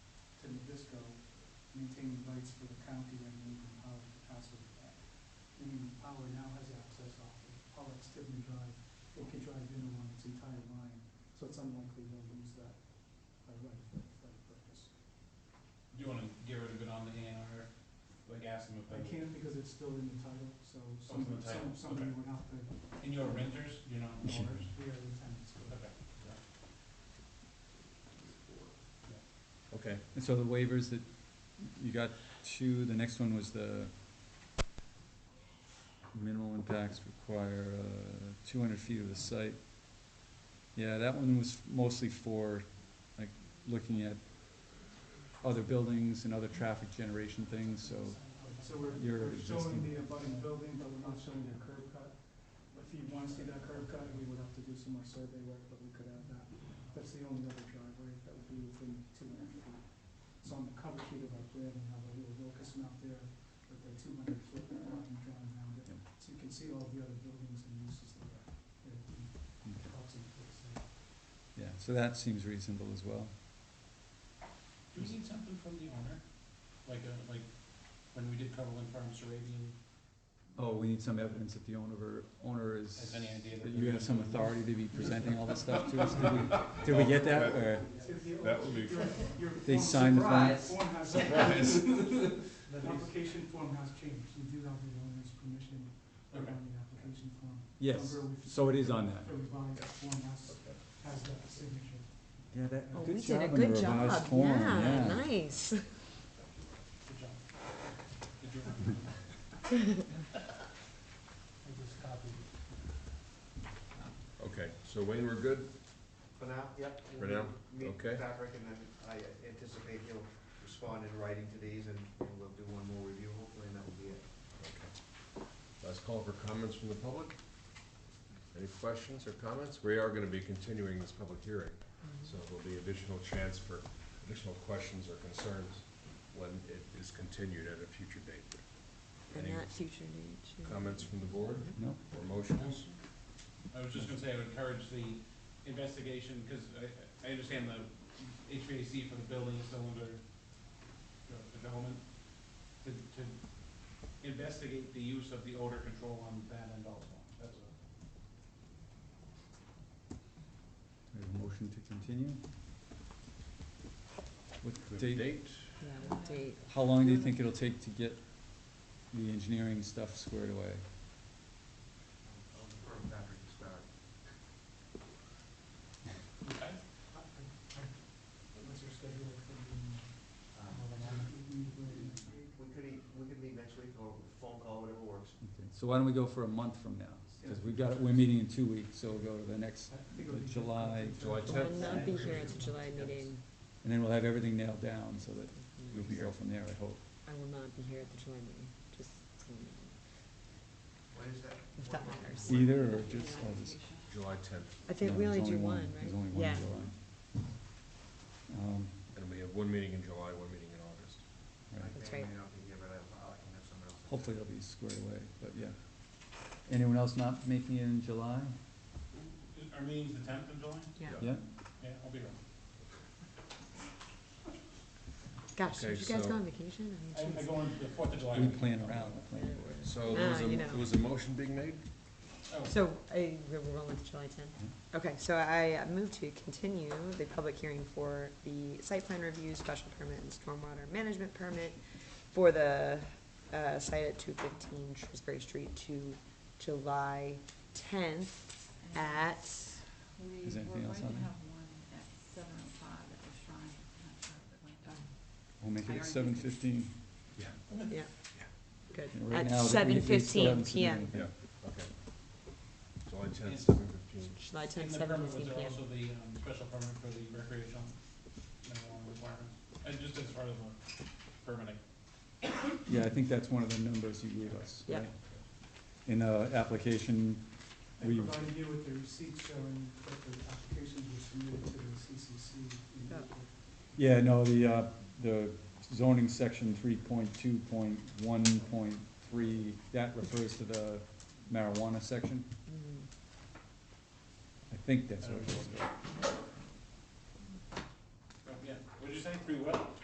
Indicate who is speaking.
Speaker 1: maintaining lights for the county and Indian Power to conserve that. Indian Power now has access off of Pollock Stibney Drive, they can drive in along its entire line, so it's unlikely they'll lose that by right of way, for that purpose.
Speaker 2: Do you wanna get rid of it on the A and R, like ask them if
Speaker 1: I
Speaker 2: they,
Speaker 1: can't because it's still in the title, so
Speaker 2: Oh, it's in
Speaker 1: some,
Speaker 2: the title,
Speaker 1: some, somebody
Speaker 2: okay.
Speaker 1: would have to,
Speaker 2: and you're renters, you're not
Speaker 1: or,
Speaker 2: owners?
Speaker 1: we are the tenants, but.
Speaker 2: Okay.
Speaker 3: Okay, and so the waivers that, you got two, the next one was the minimal impacts require, uh, two hundred feet of the site. Yeah, that one was mostly for, like, looking at other buildings and other traffic generation things, so,
Speaker 1: So we're,
Speaker 3: Your
Speaker 1: we're showing
Speaker 3: existing-
Speaker 1: the abutting building, but we're not showing the curb cut. If you wanna see that curb cut, we would have to do some more survey work, but we could add that. That's the only other driveway that would be within two hundred feet. So on the cover sheet of our plan, we have a little locus map there with the two hundred foot line drawn around it.
Speaker 3: Yeah.
Speaker 1: So you can see all the other buildings and uses that are, that helps in place there.
Speaker 3: yeah, so that seems reasonable as well.
Speaker 2: Do we need something from the owner? Like, uh, like, when we did Cumberland Farms Arabian,
Speaker 3: Oh, we need some evidence that the owner, owner is,
Speaker 2: has any idea that? they're
Speaker 3: that you have
Speaker 2: gonna
Speaker 3: some
Speaker 2: do-
Speaker 3: authority to be presenting all this stuff to us, did we, did we get that, or?
Speaker 4: That would be
Speaker 1: Your- your
Speaker 3: They
Speaker 1: form-
Speaker 3: signed the form.
Speaker 1: surprise, Form has.
Speaker 4: Surprise.
Speaker 1: The application form has changed, you do have the owner's permission on
Speaker 2: Okay.
Speaker 1: the application form.
Speaker 3: Yes,
Speaker 1: Remember, we've-
Speaker 3: so it is on that.
Speaker 1: The revised form has, has that signature.
Speaker 3: Yeah, that,
Speaker 1: Oh,
Speaker 3: good
Speaker 5: We did
Speaker 3: job
Speaker 5: a
Speaker 3: on the
Speaker 5: good
Speaker 3: revised
Speaker 5: job,
Speaker 3: form,
Speaker 5: yeah,
Speaker 3: yeah.
Speaker 5: nice.
Speaker 2: Good job. Did you recommend it?
Speaker 1: I just copied it.
Speaker 4: Okay, so Wayne, we're good?
Speaker 6: For now, yep.
Speaker 4: For now?
Speaker 6: Meet
Speaker 4: Okay.
Speaker 6: Patrick, and then I anticipate he'll respond in writing to these, and and we'll do one more review hopefully, and that will be it.
Speaker 4: Last call for comments from the public? Any questions or comments? We are gonna be continuing this public hearing, so there'll be additional chance for additional questions or concerns when it is continued at a future date.
Speaker 5: And
Speaker 4: Any
Speaker 5: that future date. yeah.
Speaker 4: Comments from the board
Speaker 3: No,
Speaker 4: or motions?
Speaker 2: I was just gonna say, I would encourage the investigation, because I, I understand the HVAC for the building is still under uh, development, to, to investigate the use of the odor control on that end also, that's all.
Speaker 3: we have a motion to continue. What date,
Speaker 5: Yeah, what date?
Speaker 3: how long do you think it'll take to get the engineering stuff squared away?
Speaker 6: I'll defer to Patrick to start.
Speaker 2: Okay.
Speaker 1: I- I- I- What's your schedule for the,
Speaker 6: Um, We could, e- we could meet next week, or phone call, whatever works.
Speaker 3: Okay, So why don't we go for a month from now? Cause we've got, we're meeting in two weeks, so we'll go to the next,
Speaker 1: I think it'll be-
Speaker 3: July-
Speaker 4: July
Speaker 5: I will not be here at the July meeting.
Speaker 3: and then we'll have everything nailed down so that we can go from there, I hope.
Speaker 5: I will not be here at the July meeting, just, so you know.
Speaker 6: What is that?
Speaker 5: If
Speaker 6: What
Speaker 5: that
Speaker 6: month?
Speaker 5: matters.
Speaker 3: Either or just, I'll just.
Speaker 4: July tenth,
Speaker 5: I think
Speaker 3: no,
Speaker 5: we
Speaker 3: there's
Speaker 5: only do
Speaker 3: only
Speaker 5: one, right?
Speaker 3: There's only one
Speaker 5: Yeah.
Speaker 3: in July. Um,
Speaker 4: and we have one meeting in July, one meeting in August.
Speaker 3: right.
Speaker 6: I
Speaker 5: That's
Speaker 6: may or
Speaker 5: right.
Speaker 6: may not be here, but I'll- I'll- I can have someone else.
Speaker 3: hopefully it'll be squared away, but yeah. Anyone else not making it in July?
Speaker 2: Our meeting's the tenth of July?
Speaker 5: Yeah,
Speaker 4: Yeah.
Speaker 3: Yeah,
Speaker 2: Yeah, I'll be around.
Speaker 5: gosh,
Speaker 4: Okay,
Speaker 5: did you guys
Speaker 4: so-
Speaker 5: go on vacation? I mean,
Speaker 2: I, I
Speaker 5: geez.
Speaker 2: go on the fourth of July.
Speaker 3: we plan around, we plan away.
Speaker 4: So there was
Speaker 5: Ah,
Speaker 4: a,
Speaker 5: you know.
Speaker 4: there was a motion being made?
Speaker 2: Oh,
Speaker 5: So, I, we're rolling with July tenth?
Speaker 4: Mm-hmm.
Speaker 5: Okay, so I move to continue the public hearing for the site plan review, special permit, and stormwater management permit for the, uh, site at two fifteen Shrewsbury Street to July tenth at,
Speaker 7: We
Speaker 3: Is there anything else on
Speaker 7: We're going to
Speaker 3: there?
Speaker 7: have one at seven oh five at the shrine, not sure if it went down.
Speaker 3: We'll make it at seven fifteen.
Speaker 4: Yeah.
Speaker 5: yeah, good,
Speaker 3: And right
Speaker 5: at
Speaker 3: now, they- they
Speaker 5: seven
Speaker 3: still
Speaker 5: fifteen
Speaker 3: haven't submitted
Speaker 5: PM.
Speaker 3: anything.
Speaker 4: Okay. July
Speaker 2: And-
Speaker 4: tenth, seven fifteen.
Speaker 5: July
Speaker 2: In
Speaker 5: tenth,
Speaker 2: the
Speaker 5: seven
Speaker 2: permit, was
Speaker 5: fifteen
Speaker 2: there
Speaker 5: PM.
Speaker 2: also the, um, special permit for the recreational marijuana requirements? And just as part of the permitting.
Speaker 3: Yeah, I think that's one of the numbers you gave us,
Speaker 5: Yeah.
Speaker 3: right? In the application,
Speaker 1: I
Speaker 3: we,
Speaker 1: provided you with the receipt showing that the applications were submitted to the CCC in
Speaker 5: Yeah.
Speaker 1: April.
Speaker 3: yeah, no, the, uh, the zoning section three point two point one point three, that refers to the marijuana section.
Speaker 5: Mm.
Speaker 3: I think that's what it was.
Speaker 2: Oh, yeah, what'd you say, free will?